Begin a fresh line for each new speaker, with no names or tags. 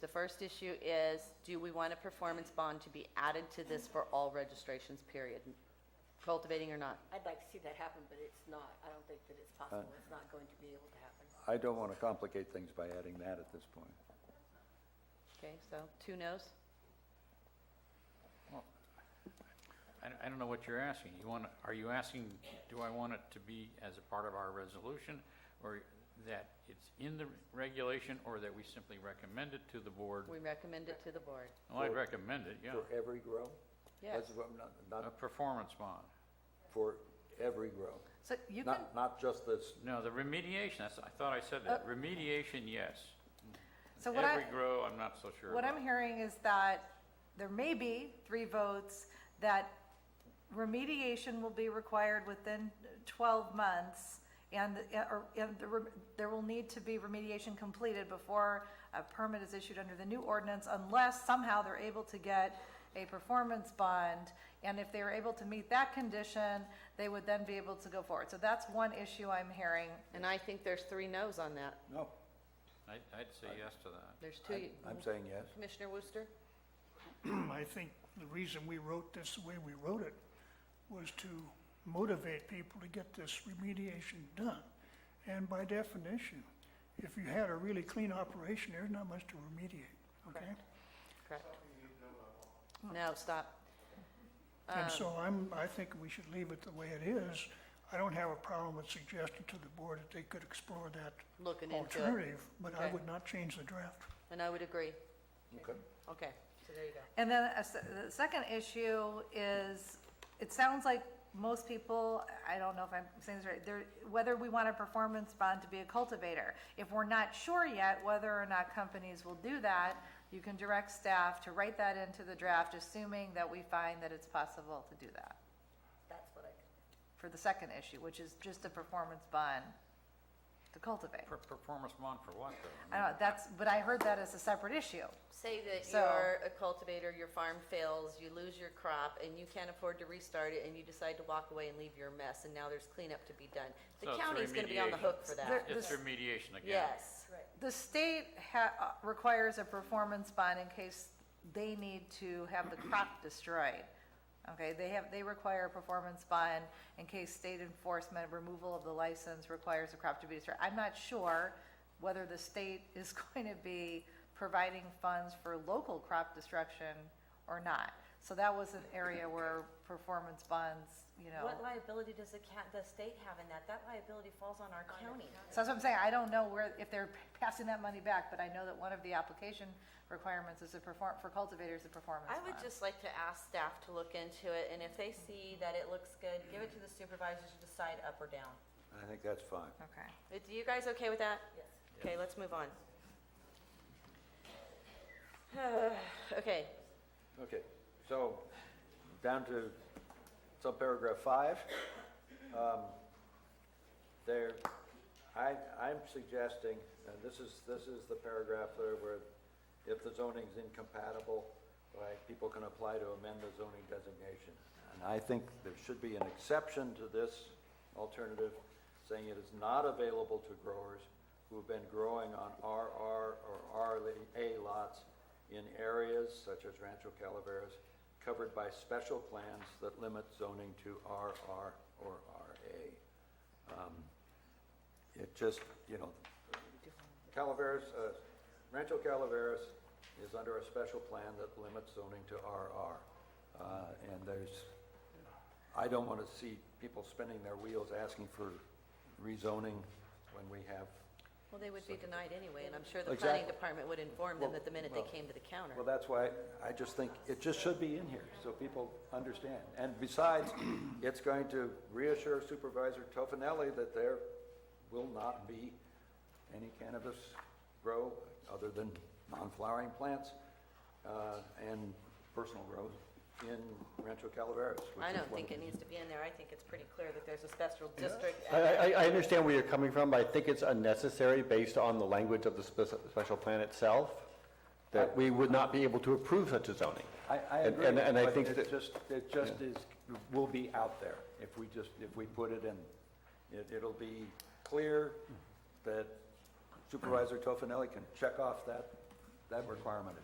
The first issue is, do we want a performance bond to be added to this for all registrations, period? Cultivating or not?
I'd like to see that happen, but it's not. I don't think that it's possible. It's not going to be able to happen.
I don't want to complicate things by adding that at this point.
Okay, so two no's?
I, I don't know what you're asking. You want, are you asking, do I want it to be as a part of our resolution? Or that it's in the regulation or that we simply recommend it to the board?
We recommend it to the board.
Well, I'd recommend it, yeah.
For every grow?
Yes.
That's what, I'm not,
A
not
performance bond.
for every grow,
So you can,
not, not just this,
No, the remediation, that's, I thought I said that. Remediation, yes.
Uh, So what
Every
I,
grow, I'm not so sure
what
about.
I'm hearing is that there may be three votes that remediation will be required within twelve months and, or, and the rem- there will need to be remediation completed before a permit is issued under the new ordinance unless somehow they're able to get a performance bond. And if they were able to meet that condition, they would then be able to go forward. So that's one issue I'm hearing.
and I think there's three no's on that.
no,
I'd, I'd say yes to that.
There's two.
I- I'm saying yes.
Commissioner Wooster?
I think the reason we wrote this the way we wrote it was to motivate people to get this remediation done. And by definition, if you had a really clean operation, there's not much to remediate, okay?
Correct. No, stop. Um,
And so I'm, I think we should leave it the way it is. I don't have a problem with suggesting to the board that they could explore that
Looking into it.
alternative, but I
Okay.
would not change the draft.
And I would agree.
Okay.
Okay, so there you go.
And then a se- the second issue is, it sounds like most people, I don't know if I'm saying this right, there, whether we want a performance bond to be a cultivator. If we're not sure yet whether or not companies will do that, you can direct staff to write that into the draft, assuming that we find that it's possible to do that.
That's what I,
For the second issue, which is just a performance bond to cultivate.
Per- Performance bond for what, though?
I don't know, that's, but I heard that as a separate issue.
Say that
So-
you're a cultivator, your farm fails, you lose your crop, and you can't afford to restart it, and you decide to walk away and leave your mess, and now there's cleanup to be done.
So
The
it's
county's gonna be on the hook
remediation.
for
There-
that.
It's
this-
remediation again.
Yes.
The state ha- uh, requires a performance bond in case they need to have the crop destroyed. Okay, they have, they require a performance bond in case state enforcement, removal of the license requires a crop to be destroyed. I'm not sure whether the state is going to be providing funds for local crop destruction or not. So that was an area where performance bonds, you know.
What liability does the ca- the state have in that? That liability falls on our county.
So that's what I'm saying, I don't know where, if they're passing that money back, but I know that one of the application requirements is a perform, for cultivators, a performance
I would
bond.
just like to ask staff to look into it, and if they see that it looks good, give it to the supervisors to decide up or down.
I think that's fine.
Okay.
Uh, Do you guys okay with that?
yes.
Okay, let's move on. Okay,
Okay, so, down to subparagraph five. Um, There, I, I'm suggesting, and this is, this is the paragraph there where if the zoning's incompatible, right, people can apply to amend the zoning designation. And I think there should be an exception to this alternative, saying it is not available to growers who have been growing on RR or RA lots in areas such as Rancho Calaveras covered by special plans that limit zoning to RR or RA it just, you know, Calaveras, uh, Rancho Calaveras is under a special plan that limits zoning to RR. Uh, And there's, I don't want to see people spinning their wheels asking for rezoning when we have,
well, they would be denied anyway, and I'm sure the planning
Exactly.
department would inform them
Well,
that the minute they
well,
came to the counter.
well, that's why I just think it just should be in here so people understand. And besides, it's going to reassure Supervisor Tofinelli that there will not be any cannabis grow other than non-flowering plants uh, and personal grows in Rancho Calaveras. which
I
is
don't
one
think
of
it needs to be in there. I think it's pretty clear that there's a special district.
I, I, I understand where you're coming from, but I think it's unnecessary based on the language of the spec- special plan itself, that we would not be able to approve such a zoning.
I, I
And-
agree,
and- And I
but
think
it
that,
just, it just is, will be out there if we just, if we put it in. It, it'll be clear that Supervisor Tofinelli can check off that that requirement